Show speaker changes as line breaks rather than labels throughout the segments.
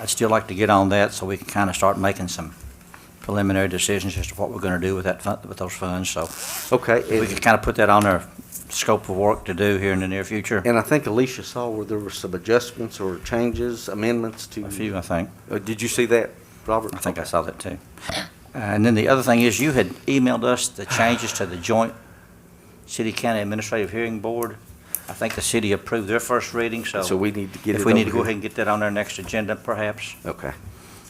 I'd still like to get on that so we can kind of start making some preliminary decisions as to what we're going to do with that, fun- with those funds. So
Okay,
we
and,
can kind of put that on our scope of work to do here in the near future.
and I think Alicia saw where there were some adjustments or changes, amendments to.
A few, I think.
Uh, Did you see that, Robert?
I think I saw that too. And then the other thing is, you had emailed us the changes to the joint city-county administrative hearing board. I think the city approved their first reading, so.
So we need to get
If
it
we need
over
to go
here.
ahead and get that on our next agenda, perhaps.
Okay.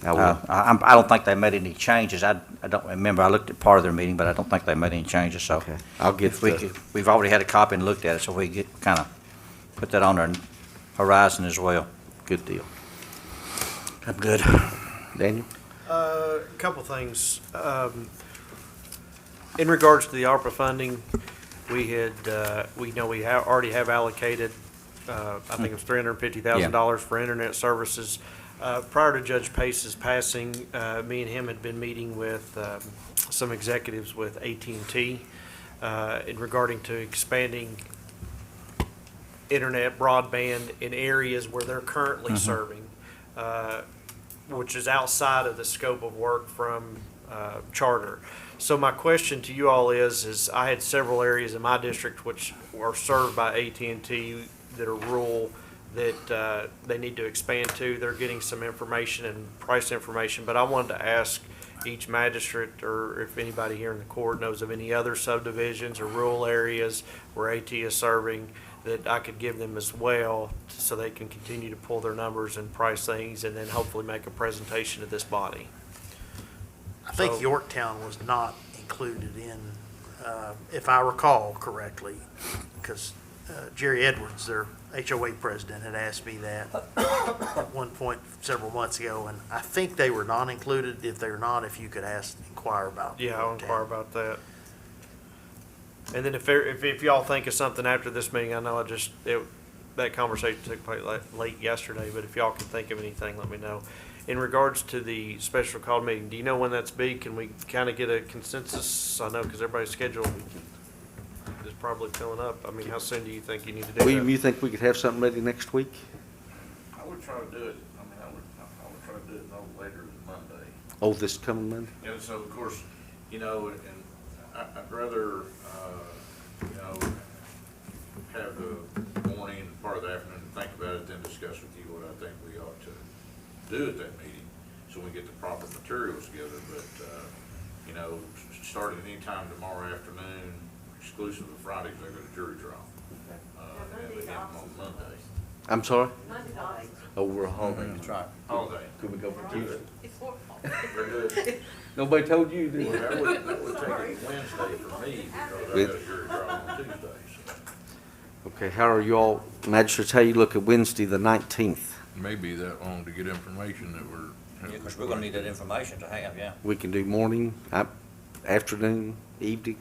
I
Uh,
will.
I, I'm- I don't think they made any changes. I, I don't remember. I looked at part of their meeting, but I don't think they made any changes, so.
Okay. I'll get
If we
the-
could, we've already had a copy and looked at it, so we get, kind of put that on our horizon as well.
Good deal.
I'm good.
Daniel?
Uh, A couple things. Um, In regards to the ARPA funding, we had, uh, we know we ha- already have allocated, uh, I think it was $350,000 for internet services. Uh, Prior to Judge Pace's passing, uh, me and him had been meeting with um, some executives with at and T uh, in regarding to expanding internet broadband in areas where they're currently serving. Uh, which is outside of the scope of work from uh, charter. So my question to you all is, is I had several areas in my district which are served by at and T that are rural, that uh, they need to expand to. They're getting some information and price information, but I wanted to ask each magistrate, or if anybody here in the court knows of any other subdivisions or rural areas where AT is serving, that I could give them as well, so they can continue to pull their numbers and price things, and then hopefully make a presentation to this body.
I think
So-
Yorktown was not included in, uh, if I recall correctly, because Jerry Edwards, their HOA president, had asked me that at one point several months ago, and I think they were not included. If they're not, if you could ask, inquire about.
Yeah, I'll inquire
Yorktown.
about that. And then if, there- if, if y'all think of something after this meeting, I know I just, it, that conversation took place late, late yesterday, but if y'all can think of anything, let me know. In regards to the special call meeting, do you know when that's be? Can we kind of get a consensus? I know, because everybody's schedule is probably filling up. I mean, how soon do you think you need to do
William, you
that?
think we could have something ready next week?
I would try to do it, I mean, I would, I would try to do it no later than Monday.
Oh, this coming Monday?
And so, of course, you know, and I, I'd rather, uh, you know, have the morning and part of the afternoon to think about it, then discuss with you what I think we ought to do at that meeting, so we get the proper materials together, but, uh, you know, s- starting anytime tomorrow afternoon, exclusive of Fridays, I go to jury trial. Uh, and we have them on Monday,
I'm sorry?
Monday's always,
Oh, we're home.
That's right.
holiday.
Could we go for Tuesday?
it's four o'clock.
We're good.
Nobody told you, did
Well,
they?
that would, that would take it Wednesday for me, because I got a jury trial on Tuesday, so.
Okay, how are you all, magistrates, how you look at Wednesday, the nineteenth?
maybe that long to get information that we're.
Because we're going to need that information to have, yeah.
We can do morning, uh, afternoon, evening?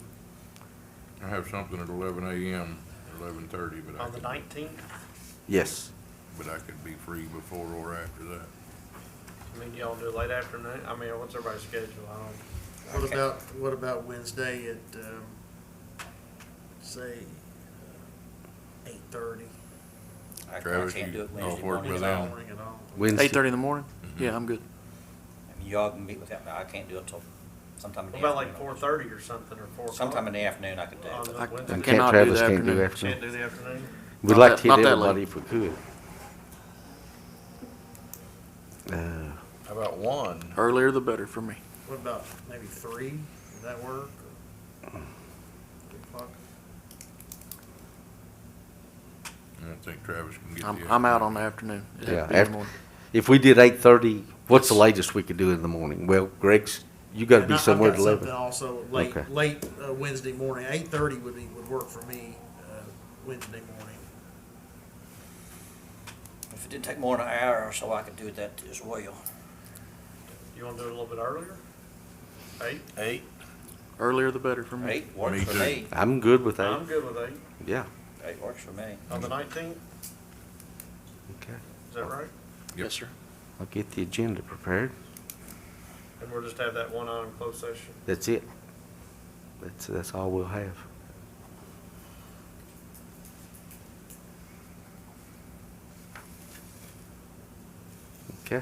I have something at eleven AM, eleven thirty, but I
On the
could,
nineteenth?
Yes.
but I could be free before or after that.
I mean, y'all do late afternoon? I mean, what's everybody's schedule? I don't.
What about, what about Wednesday at, um, say, uh, eight thirty?
I
Travis,
can't
you-
do it
I'll
Wednesday
work
morning.
with
I
Alan.
Ring it on.
Wednesday.
Eight thirty in the morning?
Mm-hmm.
Yeah, I'm good.
mean, Y'all can meet with them. I can't do it till sometime in the
What
afternoon.
about like four thirty or something, or four o'clock? Uh,
Sometime in the afternoon I could do
On
it.
the
I-
Wednesday?
And Camp
Cannot do
Travis
the
can't do
afternoon.
afternoon.
Can't do the afternoon?
We'd
Not
like
that-
to
not
hit
that
everybody
late.
if we could. Uh,
How about one?
Earlier the better for me.
What about maybe three? Would that work? Three o'clock?
I don't think Travis can get.
I'm,
the
I'm out
afternoon.
on the afternoon. It'd
Yeah,
have to be in the
after-
morning.
If we did eight thirty, what's the latest we could do in the morning? Well, Greg's, you gotta
And
be
I- I've
somewhere
got
at eleven.
Something also late,
Okay.
late uh, Wednesday morning, eight thirty would be, would work for me, uh, Wednesday morning.
If it didn't take more than an hour or so, I could do that as well.
You wanna do it a little bit earlier? Eight?
Eight?
Earlier the better for me.
Eight works
Me
for
too.
me.
I'm good with that.
I'm good with eight.
Yeah.
Eight works for me.
On the nineteenth,
Okay.
is that right?
Yes, sir.
I'll get the agenda prepared.
And we'll just have that one item closed session.
That's it. That's, that's all we'll have. Okay.